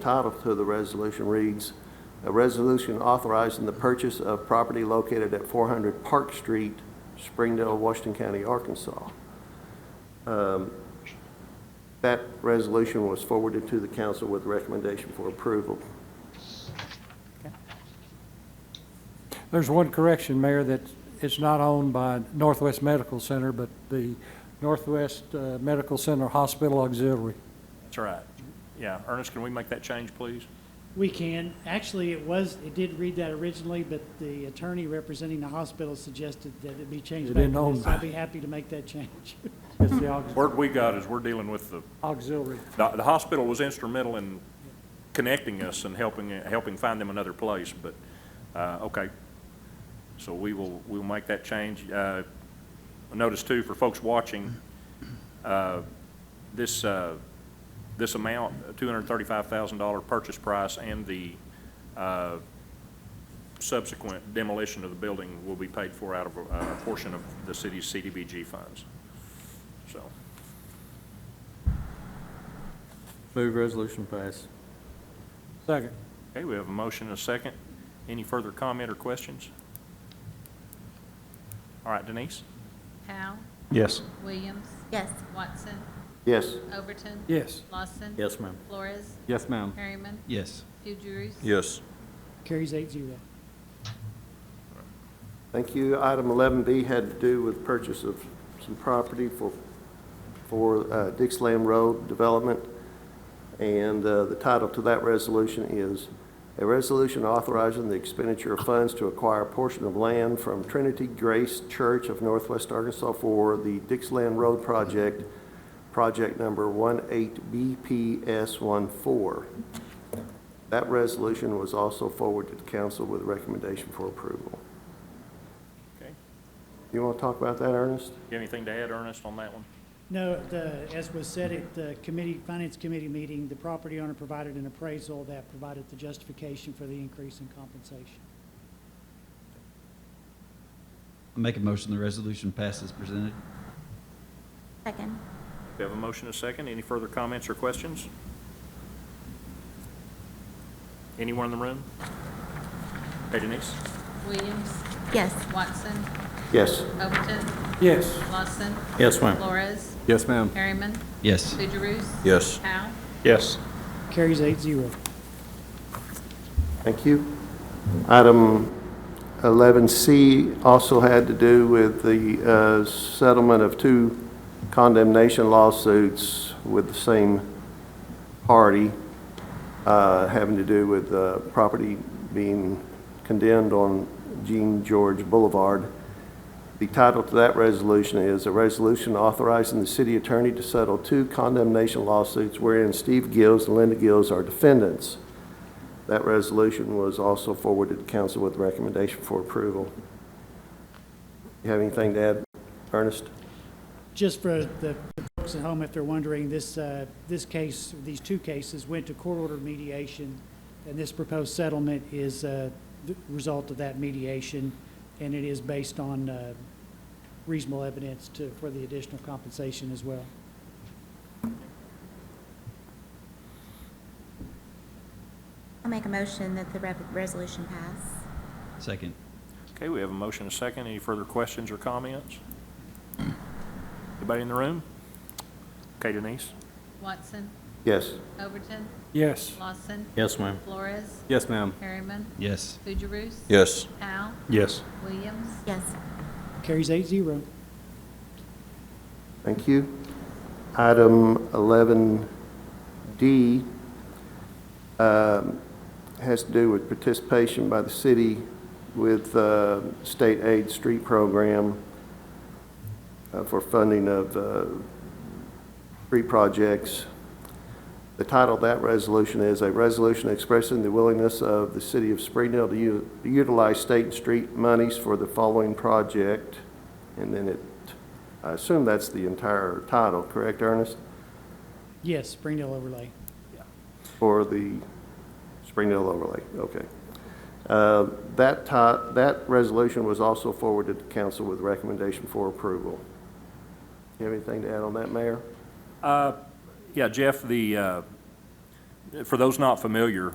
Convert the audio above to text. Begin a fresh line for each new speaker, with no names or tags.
Title to the resolution reads, "A resolution authorizing the purchase of property located at 400 Park Street, Springdale, Washington County, Arkansas." Um, That resolution was forwarded to the council with recommendation for approval.
There's one correction, Mayor, that it's not owned by Northwest Medical Center, but the Northwest uh, Medical Center Hospital Auxiliary.
That's right. Yeah, Ernest, can we make that change, please?
We can. Actually, it was, it did read that originally, but the attorney representing the hospital suggested that it be changed
It
back
didn't
to
own
this.
that.
I'd be happy to make that change.
It's the aux-
Word we got is we're dealing with the,
auxiliary.
the the hospital was instrumental in connecting us and helping, helping find them another place, but, uh, okay. So we will, we'll make that change. Uh, Notice too, for folks watching, uh, this, uh, this amount, $235,000 purchase price and the uh, subsequent demolition of the building will be paid for out of a a portion of the city's CDBG funds. So,
Move resolution pass.
Second.
okay, we have a motion and a second. Any further comment or questions? All right, Denise?
Powell,
Yes.
Williams. Yes. Watson,
Yes,
Overton.
Yes.
Lawson.
Yes, ma'am. Um,
Flores,
Yes, ma'am.
Harriman,
Yes.
Fugierus.
Yes.
Carries eight zero.
thank you. Item 11B had to do with purchase of some property for, for uh, Dixland Road Development. And uh, the title to that resolution is, "A Resolution Authorizing the Expenditure of Funds to Acquire a Portion of Land from Trinity Grace Church of Northwest Arkansas for the Dixland Road Project, Project Number 18BPS14." That resolution was also forwarded to council with a recommendation for approval.
Okay.
You want to talk about that, Ernest?
You have anything to add, Ernest, on that one?
No, the, as was said at the committee, finance committee meeting, the property owner provided an appraisal that provided the justification for the increase in compensation.
I make a motion the resolution passes presented.
Second.
We have a motion and a second. Any further comments or questions? Anyone in the room? Hey, Denise?
Williams,
Yes.
Watson,
Yes.
Overton,
Yes.
Lawson,
Yes, ma'am.
Flores,
Yes, ma'am.
Harriman,
Yes.
Fugierus.
Yes.
Powell,
Yes.
Carries eight zero.
Thank you. Item 11C also had to do with the uh, settlement of two condemnation lawsuits with the same party, uh, having to do with uh, property being condemned on Jean George Boulevard. The title to that resolution is a resolution authorizing the city attorney to settle two condemnation lawsuits wherein Steve Gills and Linda Gills are defendants. That resolution was also forwarded to council with recommendation for approval. You have anything to add, Ernest?
Just for the folks at home, if they're wondering, this, uh, this case, these two cases went to court ordered mediation, and this proposed settlement is uh, the result of that mediation, and it is based on uh, reasonable evidence to, for the additional compensation as well.
I'll make a motion that the rev- resolution pass.
Second.
Okay, we have a motion and a second. Any further questions or comments? Anybody in the room? Okay, Denise?
Watson,
Yes.
Overton,
Yes.
Lawson,
Yes, ma'am.
Flores,
Yes, ma'am.
Harriman,
Yes.
Fugierus.
Yes.
Powell,
Yes.
Williams.
Yes.
Carries eight zero.
Thank you. Item 11D um, has to do with participation by the city with uh, state aid street program uh, for funding of uh, three projects. The title of that resolution is a resolution expressing the willingness of the city of Springdale to u- utilize state and street monies for the following project. And then it, I assume that's the entire title, correct, Ernest?
Yes, Springdale overlay.
For the Springdale overlay, okay. Uh, That ti, that resolution was also forwarded to council with recommendation for approval. You have anything to add on that, Mayor?
Uh, Yeah, Jeff, the, uh, for those not familiar,